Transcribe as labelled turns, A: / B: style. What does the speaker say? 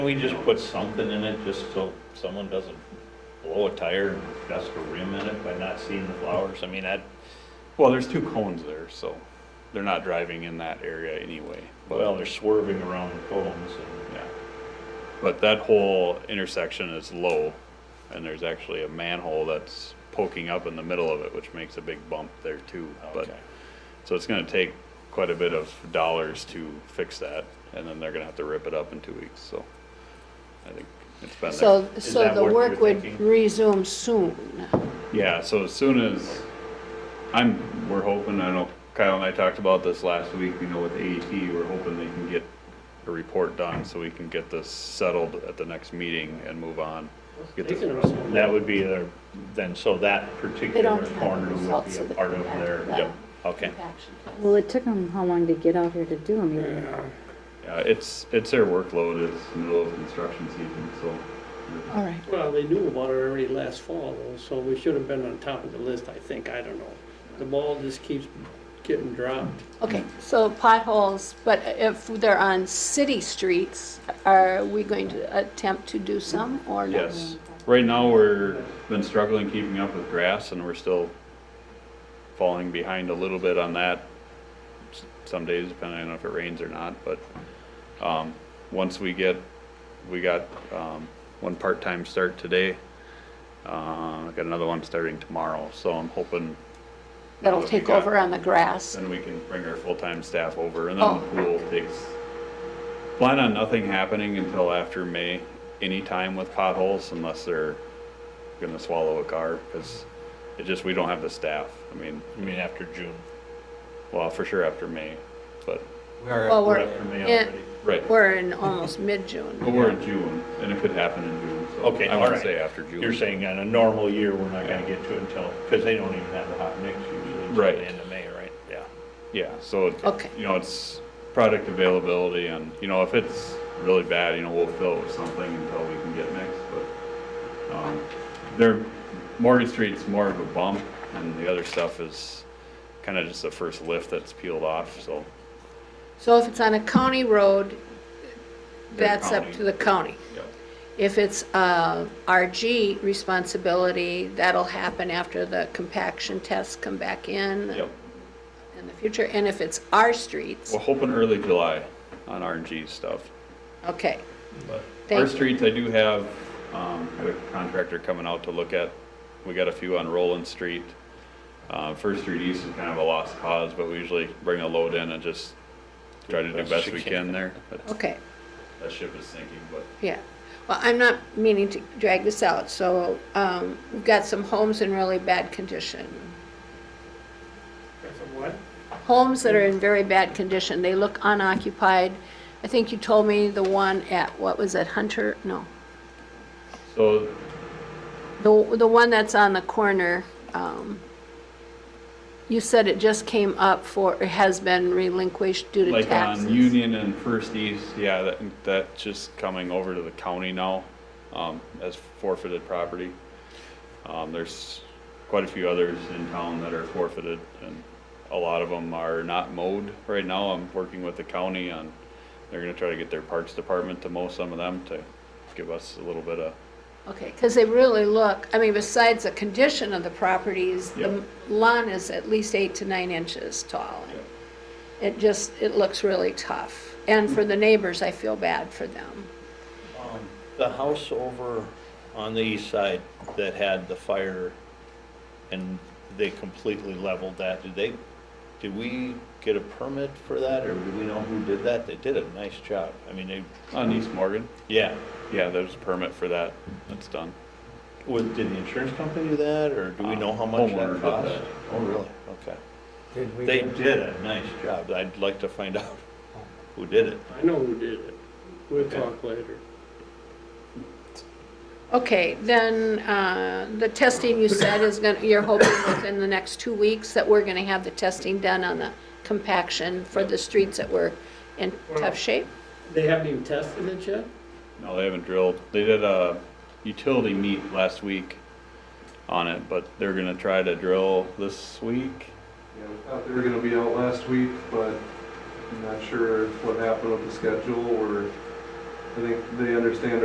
A: Can we just put something in it, just so someone doesn't blow a tire and dust a rim in it by not seeing the flowers? I mean, that,
B: Well, there's two cones there, so they're not driving in that area anyway. But,
A: well, they're swerving around the cones and,
B: yeah. But that whole intersection is low, and there's actually a manhole that's poking up in the middle of it, which makes a big bump there too. But
A: okay.
B: so it's going to take quite a bit of dollars to fix that, and then they're going to have to rip it up in two weeks. So I think it's been
C: So,
A: Is
C: so
A: that
C: the
A: what
C: work
A: you're
C: would
A: thinking?
C: resume soon.
B: Yeah, so as soon as, I'm, we're hoping, I know Kyle and I talked about this last week, you know, with AET, we're hoping they can get a report done so we can get this settled at the next meeting and move on. Get this-
A: That would be their, then, so that particular
C: have the
A: corner would
C: results
A: be a
C: of the
A: part of their,
C: compact-
A: yep, okay.
D: Well, it took them how long to get out here to do them? even?
B: Yeah, it's, it's their workload, it's middle of construction season, so.
C: All right.
E: Well, they knew about it already last fall, though, so we should have been on top of the list, I think, I don't know. The ball just keeps getting dropped.
C: Okay, so potholes, but if they're on city streets, are we going to attempt to do some or no?
B: Yes, right now, we're, been struggling keeping up with grass and we're still falling behind a little bit on that. s- Some days depending on if it rains or not, but, um, once we get, we got, um, one part-time start today. Uh, I got another one starting tomorrow, so I'm hoping.
C: That'll
B: now that we
C: take
B: got-
C: over on the grass?
B: Then we can bring our full-time staff over and
C: Oh.
B: then the pool takes, plan on nothing happening until after May, anytime with potholes unless they're gonna swallow a car, cause it just, we don't have the staff. I mean,
A: I mean, after June,
B: well, for sure after May, but,
C: Well,
A: or
C: we're,
A: after May
C: in-
A: already.
B: right,
C: we're in almost mid-June.
B: but we're in June and it could happen in June, so.
A: Okay,
B: I wouldn't
A: alright.
B: say after June.
A: You're saying on a normal year, we're not gonna get to it until, because they don't even have the hot mix usually until
B: Right.
A: the end of May, right? Yeah.
B: Yeah, so, it-
C: Okay.
B: you know, it's product availability and, you know, if it's really bad, you know, we'll fill it with something until we can get mixed, but, um, there, Morgan Street's more of a bump and the other stuff is kinda just the first lift that's peeled off, so.
C: So if it's on a county road,
B: Their
C: that's up
B: county.
C: to the county.
B: yeah.
C: If it's uh, RG responsibility, that'll happen after the compaction tests come back in.
B: Yep,
C: in the future, and if it's our streets,
B: we're hoping early July on RNG stuff.
C: okay.
B: But
C: Thank
B: Our
C: you.
B: streets, I do have, um, got a contractor coming out to look at, we got a few on Roland Street. Uh, First Street East is kind of a lost cause, but we usually bring a load in and just try to do best we can there. But
C: Okay,
B: That ship is sinking, but
C: yeah. Well, I'm not meaning to drag this out, so um, we've got some homes in really bad condition.
E: what?
C: Homes that are in very bad condition, they look unoccupied. I think you told me the one at, what was it, Hunter? No,
B: so
C: the, the one that's on the corner. um, You said it just came up for, it has been relinquished due to
B: like on
C: taxes.
B: Union and First East, yeah, that, that's just coming over to the county now, um, as forfeited property. Um, there's quite a few others in town that are forfeited and a lot of them are not mowed right now. I'm working with the county on, they're gonna try to get their parks department to mow some of them to give us a little bit of,
C: Okay, because they really look, I mean, besides the condition of the properties, the
B: Yep.
C: lawn is at least eight to nine inches tall.
B: Yep.
C: It just, it looks really tough. And for the neighbors, I feel bad for them.
A: Um, The house over on the east side that had the fire and they completely leveled that, did they, did we get a permit for that or do we know who did that? They did a nice job. I mean, they,
B: on East Morgan.
A: yeah,
B: Yeah, there's a permit for that. That's done.
A: was, did the insurance company do that or do we know how much
B: Homeowner
A: that
B: did
A: cost?
B: that.
A: Oh, really? Okay. They did a nice job. I'd like to find out who did it.
E: I know who did it. We'll talk later.
C: Okay, then, uh, the testing you said is gonna, you're hoping within the next two weeks that we're gonna have the testing done on the compaction for the streets that were in
E: Well-
C: tough shape?
E: They haven't even tested it yet?
B: No, they haven't drilled. They did a utility meet last week on it, but they're gonna try to drill this week.
F: Yeah, we thought they were gonna be out last week, but I'm not sure what happened with the schedule or I think they understand